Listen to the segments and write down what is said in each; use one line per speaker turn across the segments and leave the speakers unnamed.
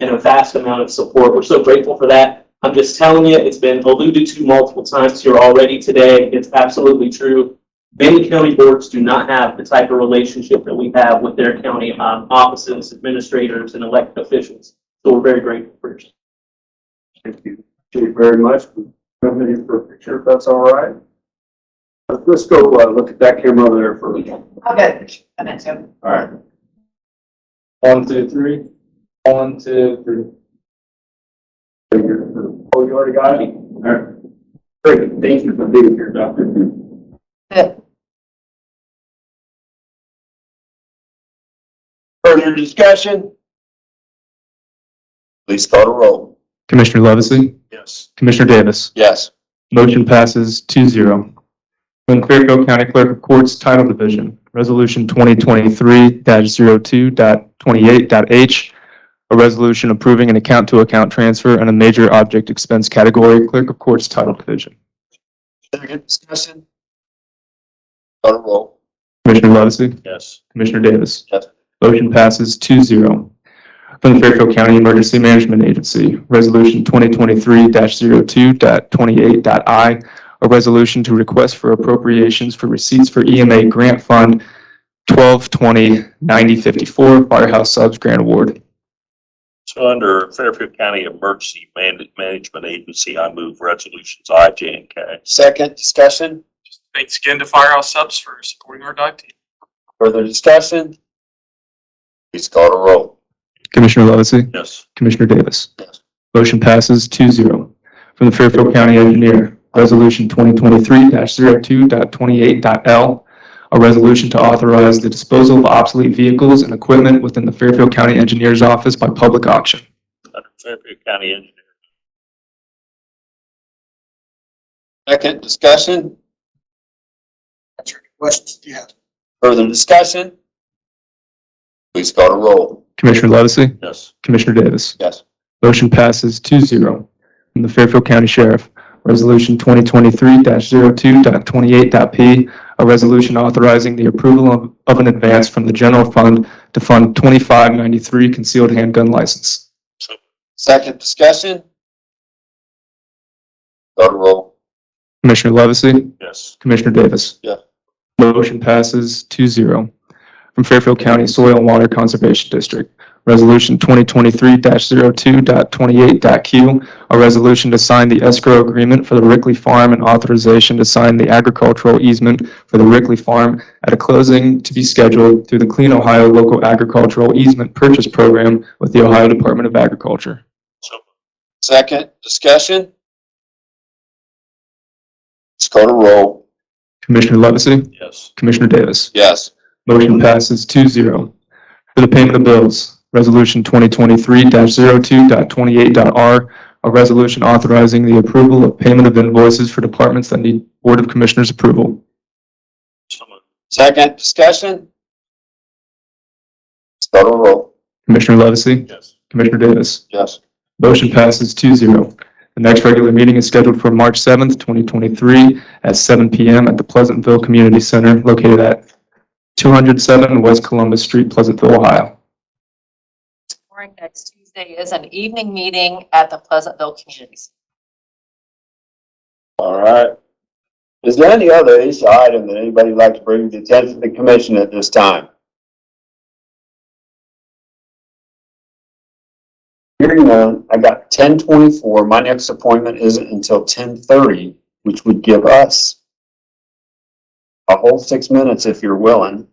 and a vast amount of support. We're so grateful for that. I'm just telling you, it's been alluded to multiple times here already today. It's absolutely true. Many county boards do not have the type of relationship that we have with their county um, offices, administrators, and elected officials. So we're very grateful for your
Thank you. Thank you very much. Committee for a picture, if that's all right. Let's- Let's go, uh, look at that camera over there for, all
I'll get a minute too.
right.
One, two, three. One, two, three.
Oh, you already got it? All right. Great, thank you for being here, Doctor.
Further discussion? Please start a roll.
Commissioner Levesey?
Yes.
Commissioner Davis?
Yes.
Motion passes 2-0. From Clearfield County Clerk of Courts Title Division, Resolution 2023-02.28.h, a resolution approving an account-to-account transfer in a major object expense category, Clerk of Courts Title Division.
Further discussion? Start a roll.
Commissioner Levesey?
Yes.
Commissioner Davis?
Yes.
Motion passes 2-0. From the Fairfield County Emergency Management Agency, Resolution 2023-02.28.i, a resolution to request for appropriations for receipts for EMA Grant Fund 12209054 Firehouse Subs Grant Award.
So under Fairfield County Emergency Man- Management Agency, I move resolutions I, J, and K.
Second discussion?
Thanks again to Firehouse Subs for supporting our dive team.
Further discussion? Please start a roll.
Commissioner Levesey?
Yes.
Commissioner Davis?
Yes.
Motion passes 2-0 From the Fairfield County Engineer, Resolution 2023-02.28.L, a resolution to authorize the disposal of obsolete vehicles and equipment within the Fairfield County Engineer's Office by public auction.
Under Fairfield County Engineer.
Second discussion?
That's your questions, yeah.
Further discussion? Please start a roll.
Commissioner Levesey?
Yes.
Commissioner Davis?
Yes.
Motion passes 2-0 From the Fairfield County Sheriff, Resolution 2023-02.28.p, a resolution authorizing the approval of- of an advance from the general fund to fund 2593 concealed handgun license.
Second discussion? Start a roll.
Commissioner Levesey?
Yes.
Commissioner Davis?
Yeah.
Motion passes 2-0 From Fairfield County Soil and Water Conservation District, Resolution 2023-02.28.Q, a resolution to sign the escrow agreement for the Rickley Farm and authorization to sign the agricultural easement for the Rickley Farm at a closing to be scheduled through the Clean Ohio Local Agricultural Easement Purchase Program with the Ohio Department of Agriculture.
So
Second discussion? Please start a roll.
Commissioner Levesey?
yes.
Commissioner Davis?
Yes.
Motion passes 2-0 For the payment of bills, Resolution 2023-02.28.r, a resolution authorizing the approval of payment of invoices for departments that need Board of Commissioners approval.
So moved.
Second discussion? Start a roll.
Commissioner Levesey?
Yes.
Commissioner Davis?
Yes.
Motion passes 2-0. The next regular meeting is scheduled for March 7th, 2023, at 7 PM at the Pleasantville Community Center located at 207 West Columbus Street, Pleasantville, Ohio.
Warren, next Tuesday is an evening meeting at the Pleasantville Community Center.
All right. Is there any other issue item that anybody would like to bring to the attention of the commission at this time? Hearing none, I got ten twenty-four. My next appointment isn't until ten thirty, which would give us a whole six minutes if you're willing.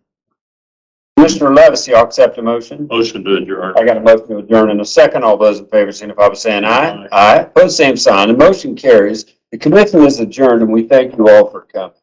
Commissioner Levesey, I'll accept a motion.
Motion to adjourn.
I got a motion to adjourn in a second. All those in favor signify by saying aye. Aye. Pose same sign. The motion carries. The commission is adjourned and we thank you all for coming.